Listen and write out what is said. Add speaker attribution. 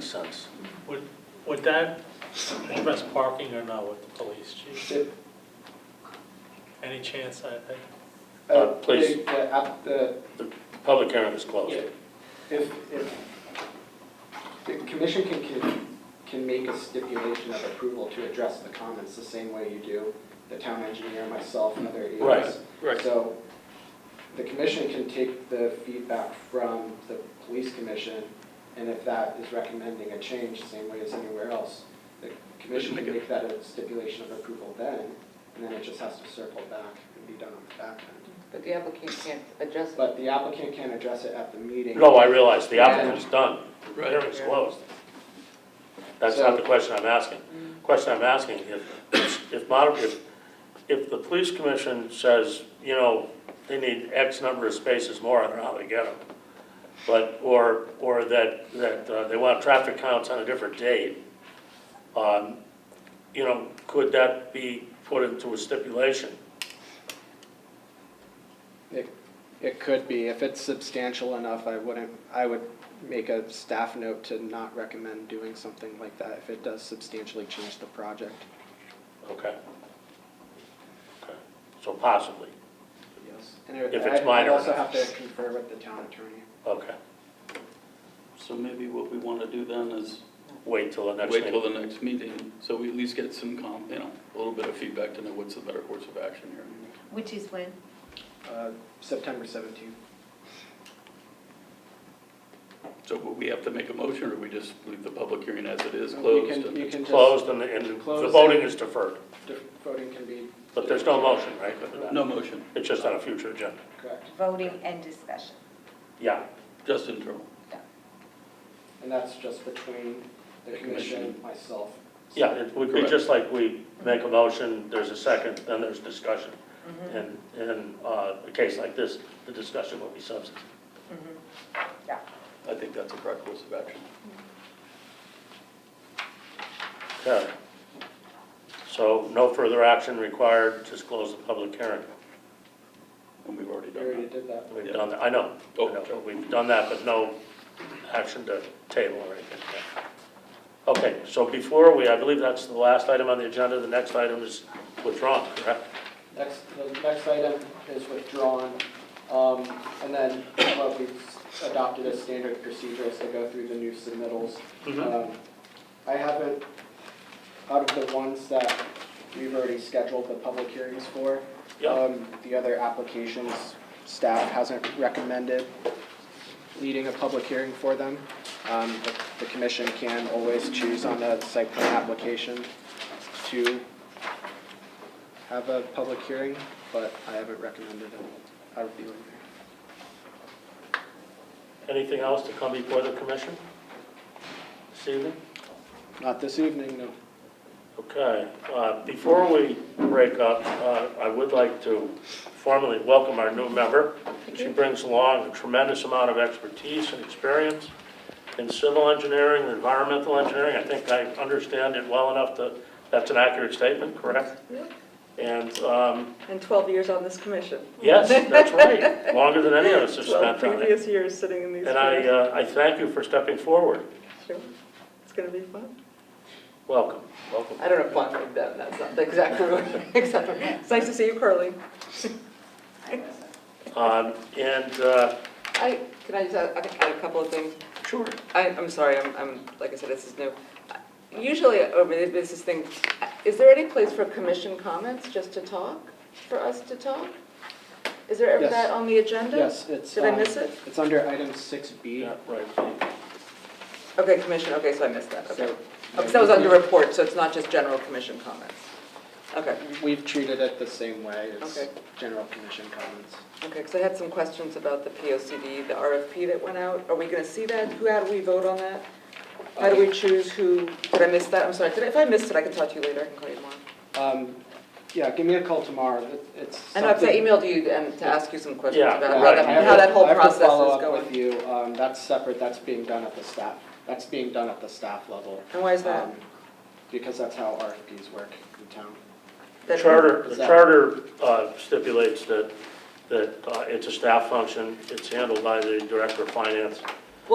Speaker 1: sense.
Speaker 2: Would, would that address parking or not with the police chief?
Speaker 3: The-
Speaker 2: Any chance that, that-
Speaker 1: Uh,
Speaker 3: the-
Speaker 1: please.
Speaker 3: the app- the-
Speaker 1: The public hearing is closed.
Speaker 3: yeah, If, if, the commission can, can, can make a stipulation of approval to address the comments the same way you do, the town engineer, myself, and other
Speaker 1: Right,
Speaker 3: EOs.
Speaker 1: right.
Speaker 3: So the commission can take the feedback from the police commission, and if that is recommending a change, same way as anywhere else, the commission can make that a stipulation of approval then, and then it just has to circle back and be done on the back end.
Speaker 4: But the applicant can't adjust
Speaker 3: But the applicant can address it at the meeting.
Speaker 1: No, I realize the applicant's done. The hearing's
Speaker 4: Yeah.
Speaker 1: closed. That's not the
Speaker 3: So-
Speaker 1: question I'm asking. Question I'm asking, if, if, mod- if, if the police commission says, you know, they need X number of spaces more, I don't know how they get them. But, or, or that, that uh, they want traffic counts on a different date, um, you know, could that be put into a stipulation?
Speaker 3: It, it could be, if it's substantial enough, I wouldn't, I would make a staff note to not recommend doing something like that if it does substantially change the project.
Speaker 1: Okay. Okay. So possibly,
Speaker 3: Yes. And I-
Speaker 1: If it's
Speaker 3: I-
Speaker 1: minor
Speaker 3: I'd also have
Speaker 1: enough.
Speaker 3: to confer with the town attorney.
Speaker 1: okay.
Speaker 5: So maybe what we want to do then is
Speaker 1: Wait till the next
Speaker 5: wait till
Speaker 1: meeting.
Speaker 5: the next meeting, so we at least get some com, you know, a little bit of feedback to know what's the better course of action here.
Speaker 6: Which is when?
Speaker 3: Uh, September seventeenth.
Speaker 5: So will we have to make a motion, or we just leave the public hearing as it is
Speaker 3: You
Speaker 5: closed?
Speaker 3: can, you
Speaker 5: and-
Speaker 3: can just,
Speaker 1: Closed and the, and the
Speaker 3: Closed.
Speaker 1: voting is deferred,
Speaker 3: dif- voting can be
Speaker 1: but there's no motion, right? for that?
Speaker 5: No motion,
Speaker 1: It's just on a future agenda.
Speaker 3: correct,
Speaker 6: Voting and discussion.
Speaker 1: Yeah,
Speaker 5: just internal.
Speaker 3: and that's just between the
Speaker 5: The
Speaker 3: commission,
Speaker 5: commission.
Speaker 3: myself.
Speaker 1: yeah, it would be just like we make a motion, there's a second, then there's discussion. And, and, uh, a case like this, the discussion will be substantive.
Speaker 5: I think that's a correct course of action.
Speaker 1: Okay. So no further action required, just close the public hearing.
Speaker 5: And we've already
Speaker 3: We
Speaker 5: done
Speaker 3: already
Speaker 5: that.
Speaker 3: did that.
Speaker 1: We've done that, I know, I know, we've done that, but no action to table or anything. Okay, so before we, I believe that's the last item on the agenda, the next item is withdrawn, correct?
Speaker 3: Next, the next item is withdrawn, um, and then what we've adopted as standard procedure is to go through the new submittals. Um, I haven't, out of the ones that we've already scheduled the public hearings for,
Speaker 1: Yeah,
Speaker 3: um, the other applications, staff hasn't recommended leading a public hearing for them. Um, but the commission can always choose on a site plan application to have a public hearing, but I haven't recommended it out of the ordinary.
Speaker 1: anything else to come before the commission this evening?
Speaker 3: Not this evening, no.
Speaker 1: Okay, uh, before we break up, uh, I would like to formally welcome our new member. She brings along a tremendous amount of expertise and experience in civil engineering, environmental engineering. I think I understand it well enough to, that's an accurate statement, correct? And, um,
Speaker 7: And 12 years on this commission.
Speaker 1: yes, that's right, longer than any of us have
Speaker 7: 12
Speaker 1: spent on it.
Speaker 7: previous years sitting in these.
Speaker 1: And I,
Speaker 7: chairs.
Speaker 1: uh, I thank you for stepping forward.
Speaker 7: Sure. It's going to be fun.
Speaker 1: Welcome, welcome.
Speaker 4: I don't know if I'm like that, that's not exactly what, exactly.
Speaker 7: It's nice to see you, Carly.
Speaker 1: Um, And, uh,
Speaker 4: I, can I just add, I think I had a couple of things.
Speaker 1: sure,
Speaker 4: I, I'm sorry, I'm, I'm, like I said, this is new. Usually, oh, but it- this is thing, is there any place for commission comments, just to talk, for us to talk? Is there ever
Speaker 3: Yes.
Speaker 4: that on the agenda?
Speaker 3: Yes, it's,
Speaker 4: Did I
Speaker 3: um,
Speaker 4: miss it?
Speaker 3: It's under item six B.
Speaker 1: yeah, right.
Speaker 4: Okay, commission, okay, so I missed that, okay.
Speaker 3: So
Speaker 4: Because Oh, that was under report, so it's not just general commission comments. Okay.
Speaker 3: We've treated it the same way as
Speaker 4: Okay.
Speaker 3: general commission comments.
Speaker 4: Okay, because I had some questions about the P O C D, the RFP that went out. Are we going to see that? Who, how do we vote on that? How do we choose who, did I miss that? I'm sorry, did I- if I missed it, I can talk to you later, I can call you tomorrow.
Speaker 3: Um, yeah, give me a call tomorrow, It- it's
Speaker 4: And I've
Speaker 3: something-
Speaker 4: emailed you and to ask you some questions
Speaker 1: Yeah,
Speaker 4: about
Speaker 3: Yeah,
Speaker 4: how
Speaker 1: right.
Speaker 4: that,
Speaker 3: I have
Speaker 4: how
Speaker 3: to-
Speaker 4: that whole
Speaker 3: I have to
Speaker 4: process is
Speaker 3: follow up
Speaker 4: going.
Speaker 3: with you, um, that's separate, that's being done at the staff, that's being done at the staff level.
Speaker 4: And why is that?
Speaker 3: um, Because that's how RFPs work in town.
Speaker 1: The
Speaker 4: That-
Speaker 1: charter, the
Speaker 3: Is that-
Speaker 1: charter uh, stipulates that, that uh, it's a staff function, it's handled by the director of finance,